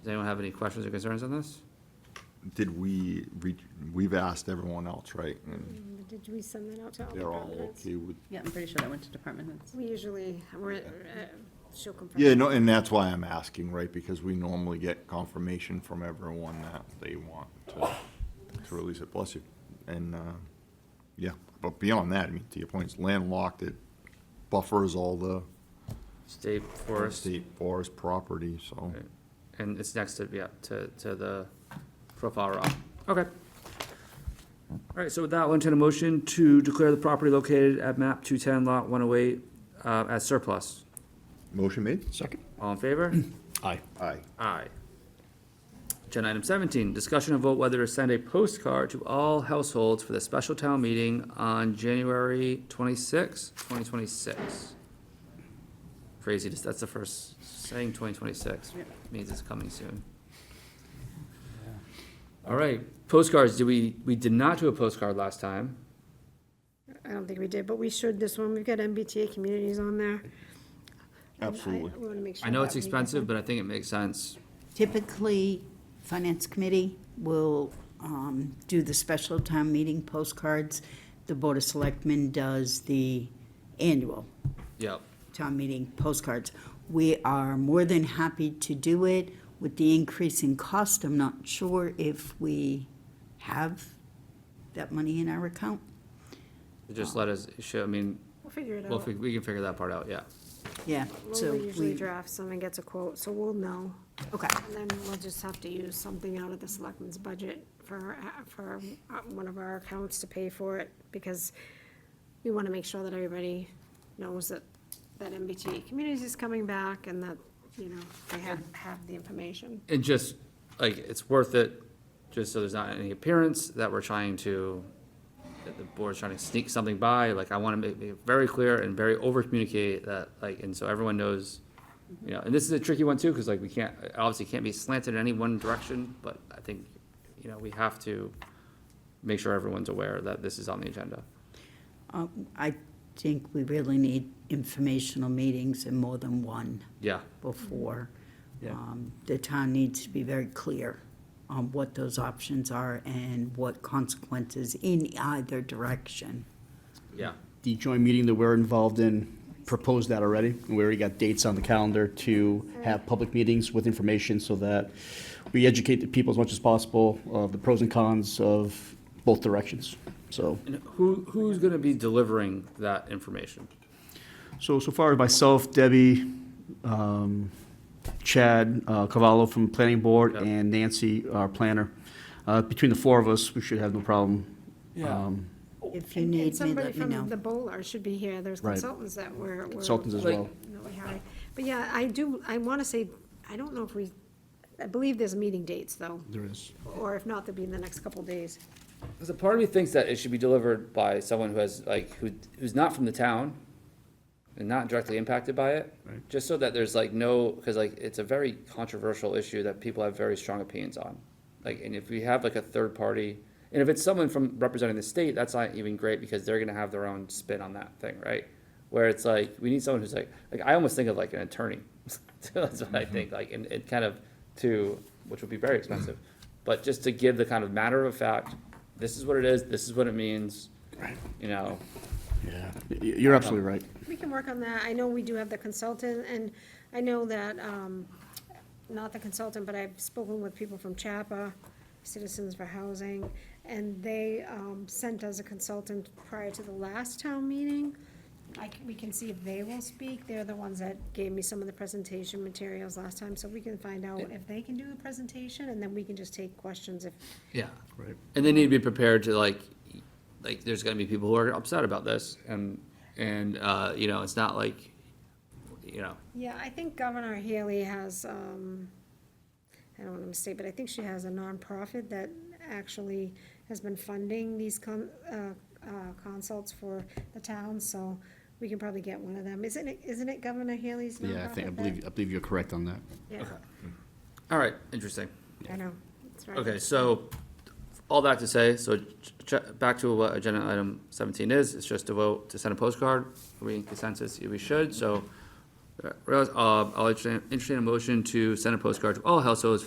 Does anyone have any questions or concerns on this? Did we, re- we've asked everyone else, right? And Did we send that out to all the they're all departments? okay with, Yeah, I'm pretty sure that went to department heads. We usually, we're, uh, she'll confirm. yeah, no, and that's why I'm asking, right? Because we normally get confirmation from everyone that they want to, to release it, bless you. And, uh, yeah, but beyond that, I mean, to your point, it's landlocked, it buffers all the State Forest, state forest property, so. right, and it's next to, yeah, to, to the profile rock. Okay. All right, so with that, I'll entertain a motion to declare the property located at map two-ten lot one-oh-eight, uh, as surplus. Motion made? Second. All in favor? Aye. Aye. Aye. Agenda item seventeen, discussion and vote whether to send a postcard to all households for the special town meeting on January twenty-sixth, twenty twenty-six. Crazy, just- that's the first, saying twenty twenty-six Yep. means it's coming soon. All right, postcards, do we, we did not do a postcard last time. I don't think we did, but we should this one. We've got MBTA communities on there. Absolutely. I want to make sure. I know that it's we- expensive, but I think it makes sense. Typically, Finance Committee will um, do the special town meeting postcards. The Board of Selectmen does the annual Yep, town meeting postcards. We are more than happy to do it. With the increase in cost, I'm not sure if we have that money in our account. just let us, show, I mean, We'll Oh. figure it well, if we, out. we can figure that part out, yeah. Yeah, so Lola usually we, drafts them and gets a quote, so we'll know. okay, And then we'll just have to use something out of the selectmen's budget for, uh, for uh, one of our accounts to pay for it, because we want to make sure that everybody knows that, that MBTA communities is coming back and that, you know, they have, have the information. And just, like, it's worth it, just so there's not any appearance that we're trying to, that the board's trying to sneak something by, like, I wanna make, make it very clear and very over communicate that, like, and so everyone knows, you know, and this is a tricky one too, cause like, we can't, it obviously can't be slanted in any one direction, but I think, you know, we have to make sure everyone's aware that this is on the agenda. Um, I think we really need informational meetings and more than one. Yeah, before. Yeah. Um, The town needs to be very clear on what those options are and what consequences in either direction. yeah, The joint meeting that we're involved in proposed that already. We already got dates on the calendar to have public meetings with information so that we educate the people as much as possible of the pros and cons of both directions. So, and who, who's gonna be delivering that information? so, so far, myself, Debbie, um, Chad uh, Cavallo from Planning Board, Yeah. and Nancy, our planner. Uh, Between the four of us, we should have no problem. um, If Oh, you And- need me, let me Somebody from the know. Bowler should be here, there's Right. consultants that were. were- Consultants as Like- well. No, we haven't. But yeah, I do, I want to say, I don't know if we, I believe there's meeting dates, though, There is. or if not, they'll be in the next couple days. Because a part of me thinks that it should be delivered by someone who has, like, who, who's not from the town and not directly impacted by it. Right. Just so that there's like no, because like, it's a very controversial issue that people have very strong opinions on. Like, and if we have like a third party, and if it's someone from representing the state, that's not even great because they're gonna have their own spin on that thing, right? Where it's like, we need someone who's like, like, I almost think of like an attorney. That's what I think, like, and it kind of to, which would be very expensive. But just to give the kind of matter of fact, this is what it is, this is what it means, you know, Yeah, Y- you're absolutely right. We can work on that. I know we do have the consultant, and I know that, um, not the consultant, but I've spoken with people from CHAPA, Citizens for Housing, and they, um, sent us a consultant prior to the last town meeting. I, c- we can see if they will speak. They're the ones that gave me some of the presentation materials last time, so we can find out if they can do a presentation, and then we can just take questions if, Yeah. Right. And they need to be prepared to like, like, there's gonna be people who are upset about this and, and, uh, you know, it's not like, you know, Yeah, I think Governor Haley has, um, I don't want to mistake, but I think she has a nonprofit that actually has been funding these con, uh, uh, consults for the town, so we can probably get one of them. Isn't it, isn't it Governor Haley's nonprofit? Yeah, I think, I that- believe, I believe you're correct on that. Yeah, all right, interesting. I know, that's right. Okay, so, all that to say, so ch- ch- back to what agenda item seventeen is, it's just a vote to send a postcard. Are we in consensus? Yeah, We should, so, uh, realize- uh, I'll entertain, entertain a motion to send a postcard to all households